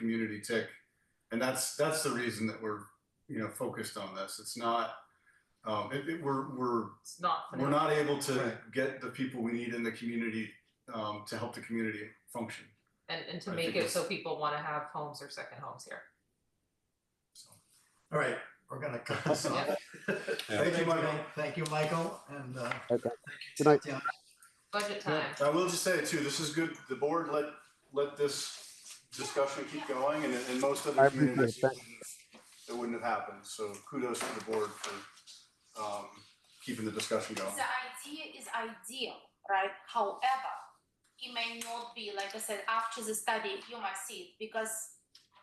community tick. And that's, that's the reason that we're, you know, focused on this. It's not, um, it, it, we're, we're It's not. we're not able to Right. get the people we need in the community um to help the community function, And and to I make think it so it's- people wanna have homes or second homes here. so. All right, we're gonna cut this off. Uh, Thank you, Michael. Thank you, Michael, and uh. Okay. thank you, Good night. Tatiana. Budget time, I will just say it too, this is good, the board let let this discussion keep going and and most I other appreciate it. communities. Thank- It wouldn't have happened, so kudos to the board for um keeping the discussion going. The idea is ideal, right? However, it may not be, like I said, after the study, you might see it because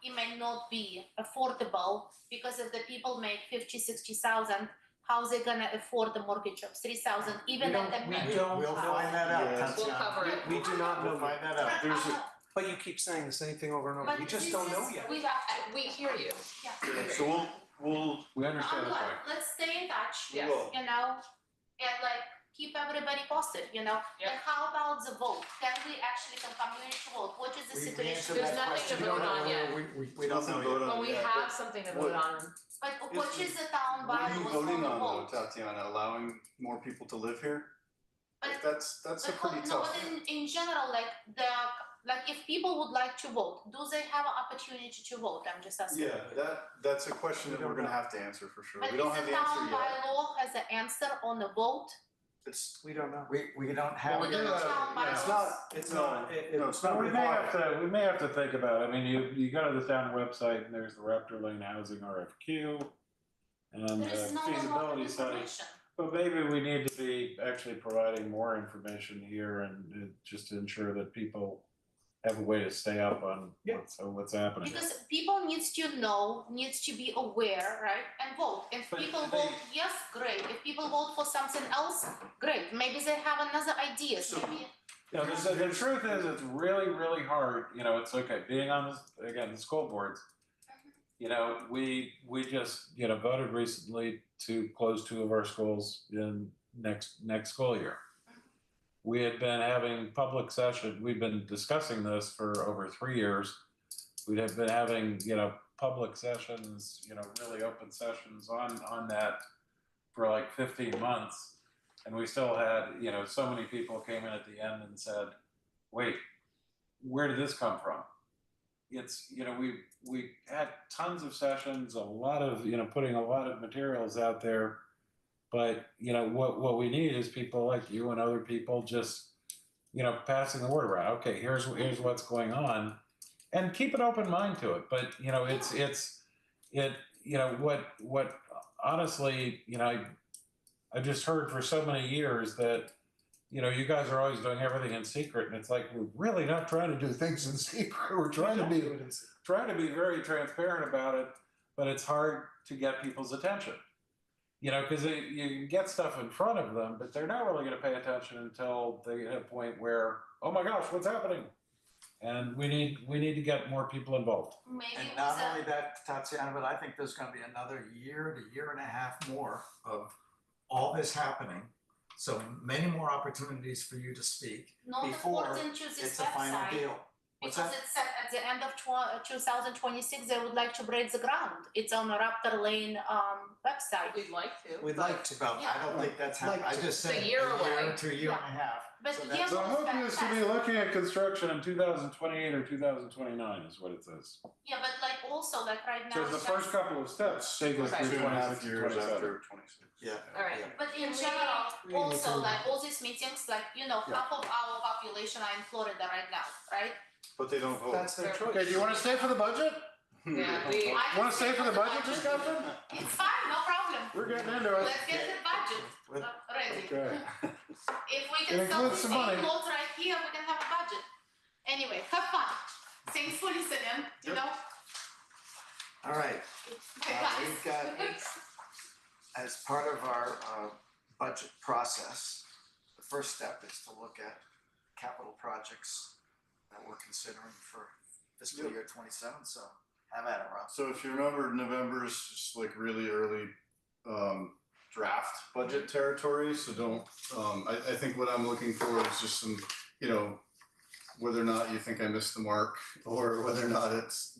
it may not be affordable because if the people make fifty, sixty thousand, how they gonna afford the mortgage of three thousand, even at the We minimum? don't, we We'll don't find know. that out, Yes. we'll Tatiana. cover it. We do not We'll know find yet. that out. There's I know, But you keep saying the same thing over and over. We but just this don't know is- yet. We I- have, we hear you. yeah. So we'll we'll. We I'm glad, let's stay in touch. Yes. you know, and like keep everybody posted, you know? And how about the vote? Can we actually can community vote? What is the We- we situation? answered There's that nothing question. to We don't vote on know. yet. We we we don't know yet. When we have something to vote on, But what is the town What are bylaws you for the voting on though, vote? Tatiana, allowing more people to live here? Like, But That's that's a but what- pretty no, tough. but in in general, like the like if people would like to vote, do they have an opportunity to vote? I'm just asking. Yeah, that, that's a question We that don't we're gonna know. have to answer for sure. But We is don't have the the answer town yet. bylaw has an answer on the vote? It's, We don't know. We we don't Well, have. we We don't don't know have- town yeah, It's bylaws. not, it's No, not, it, it- no, it's not We may have required. to, we may have to think about, it. I mean, you, you go to the town website and there's the Raptor Lane Housing RFQ and There is the not a lot of feasibility study. information. But maybe we need to be actually providing more information here and uh, just to ensure that people have a way to stay up on Yeah. what's, uh, what's happening. Because people needs to know, needs to be aware, right, and vote. If But people they- vote yes, great. If people vote for something else, great. Maybe they have another idea, So- maybe. No, the, the- the truth is, it's really, really hard, you know, it's okay, being on this, again, the school boards. You know, we, we just, you know, voted recently to close two of our schools in next, next school year. We had been having public session, we've been discussing this for over three years. We'd have been having, you know, public sessions, you know, really open sessions on, on that for like fifteen months. And we still had, you know, so many people came in at the end and said, wait, where did this come from? It's, you know, we, we had tons of sessions, a lot of, you know, putting a lot of materials out there. But, you know, what, what we need is people like you and other people just, you know, passing the word around. Okay, here's, here's what's going on. And keep an open mind to it. But, you know, it's, it's, it, you know, what, what honestly, you know, I, I just heard for so many years that, you know, you guys are always doing everything in secret, and it's like we're really not trying to do things in secret. We're trying to be trying to be very transparent about it, but it's hard to get people's attention. You know, because you can get stuff in front of them, but they're not really going to pay attention until they hit a point where, oh my gosh, what's happening? And we need we need to get more people involved. Maybe And with not the- only that, Tatiana, but I think there's gonna be another year to year and a half more of all this happening. So many more opportunities for you to speak. not before according to this It's a final website, deal. What's because that? it said at the end of tw- two thousand twenty-six, they would like to break the ground. It's on the Raptor Lane, um, website. we'd like to. We'd like to, but I don't think that's happening. I just It's a said a year year away. to a year and a half. But So yeah, that's- So I'm hoping is to be Fast. looking at construction in 2028 or 2029 is what it says. Yeah, but like also, like right So now. the it's first like- couple of steps take us Okay. through Two and a half 26 years years after twenty-six. Yeah. All right. Yeah. But Can in we- general, we need also to- like all these meetings, like, you know, half of our population are in Florida right now, right? But they don't vote. That's their choice. Okay, do you want to stay for the budget? Yeah, we, I Want to can stay for the budget budget. discussion? It's fine, no problem. We're getting into it. Let's get the budget Let- uh, ready. Okay. If we It can sell includes this some money. clothes right here, we can have a budget. Anyway, have fun. Thanks for listening, you Yep. know? All right, Bye, Uh, we've guys. got- as part of our uh budget process, the first step is to look at capital projects that we're considering for fiscal Yep. year twenty seven, so have at it, Rob. So if you remember, November is just like really early um, draft budget Mm-hmm. territory. So don't. Um, I, I think what I'm looking for is just some, you know, whether or not you think I missed the mark, or whether or not it's